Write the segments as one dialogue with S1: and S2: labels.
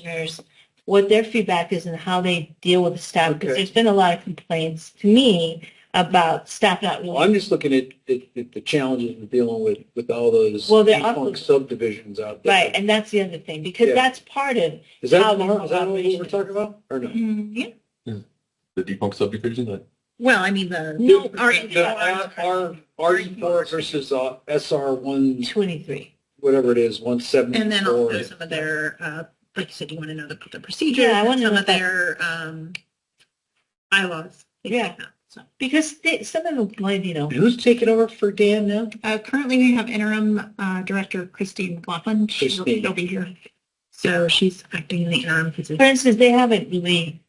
S1: commissioners, what their feedback is and how they deal with the staff. Because
S2: Okay.
S1: there's been a lot of complaints to me about staff not
S2: Well,
S1: really.
S2: Oh, I'm just looking at, at, at the challenges we're dealing with, with all those
S1: Well, they're
S2: defunct
S1: also-
S2: subdivisions out there.
S1: Right, and that's the other thing, because
S2: Yeah.
S1: that's part of.
S2: Is that,
S1: how the
S2: is that what we're
S1: operations-
S2: talking about, or no?
S3: The defunct subdivision, that
S4: Mm-hmm. Well, I mean, the.
S1: No,
S4: our-
S2: The uh, R, R four versus uh, SR one,
S1: Twenty-three.
S2: whatever it is, one seventy-four.
S4: And then also some of their, uh, like you said, you want to know the, the procedures
S1: Yeah, I wanna
S4: and some
S1: know
S4: of
S1: that.
S4: their, um, bylaws. things
S1: Yeah.
S4: like that. So,
S1: Because they, some of them, like, you know,
S2: And Who's taking over for Dan now?
S4: uh, currently we have interim, uh, director Christine McLaughlin. She'll,
S2: Christine.
S4: she'll be here. So she's acting in the interim
S1: for
S4: position.
S1: instance, they haven't really,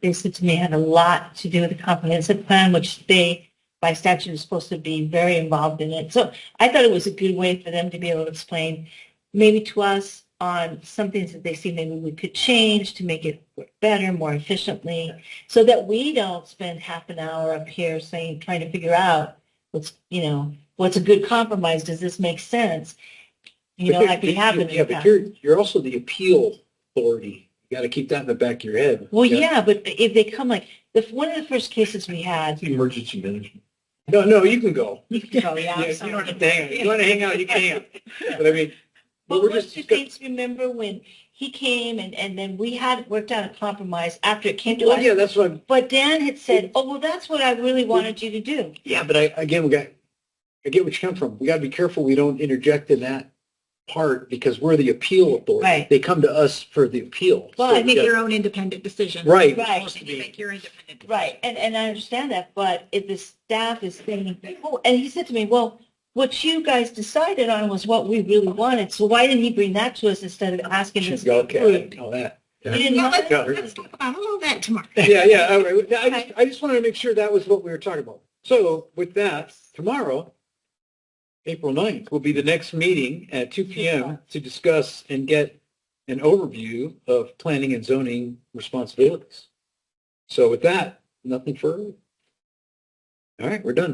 S1: they said to me, had a lot to do with the comprehensive plan, which they, by statute, is supposed to be very involved in it. So I thought it was a good way for them to be able to explain maybe to us on some things that they see maybe we could change to make it work better, more efficiently, so that we don't spend half an hour up here saying, trying to figure out what's, you know, what's a good compromise? Does this make sense? You know,
S2: But
S1: like we
S2: you-
S1: have in
S2: Yeah,
S1: the
S2: but
S1: past.
S2: you're, you're also the appeal authority. You got to keep that in the back of your head.
S1: Well,
S2: You
S1: yeah, but if they come like, the, one of the first cases we had,
S3: emergency management.
S2: gotta- No, no, you can go.
S1: you can go, yeah.
S2: Yeah,
S1: I'm
S2: You
S1: sorry.
S2: don't have to hang out. You want to hang out, you can. But I mean,
S1: But
S2: we're
S1: what's
S2: just.
S1: the things, remember when he came and, and then we had worked out a compromise after it came to
S2: Well, yeah,
S1: us?
S2: that's what I'm,
S1: But Dan had said, oh, well, that's what I really wanted you to do.
S2: Yeah, but I, again, we got, I get what you come from. We got to be careful we don't interject in that part because we're the appeal authority.
S1: Right.
S2: They come to us for the appeal.
S1: Well,
S2: So
S1: I
S4: Make
S2: we got-
S4: your own independent decision.
S2: Right.
S1: Right.
S4: Supposed to be- Make your independent.
S1: Right, and, and I understand that, but if the staff is saying, oh, and he said to me, well, what you guys decided on was what we really wanted, so why didn't he bring that to us instead of asking us?
S2: She's got- Okay, I
S1: to
S2: didn't know that.
S1: approve? He didn't
S4: Yeah,
S1: want
S4: let's,
S1: it?
S2: Yeah.
S4: let's talk about all of that tomorrow.
S2: Yeah, yeah. all right. Now, I just, I just wanted to make sure that was what we were talking about. So with that, tomorrow, April 9th, will be the next meeting at two PM to discuss and get an overview of planning and zoning responsibilities. So with that, nothing further. All right, we're done.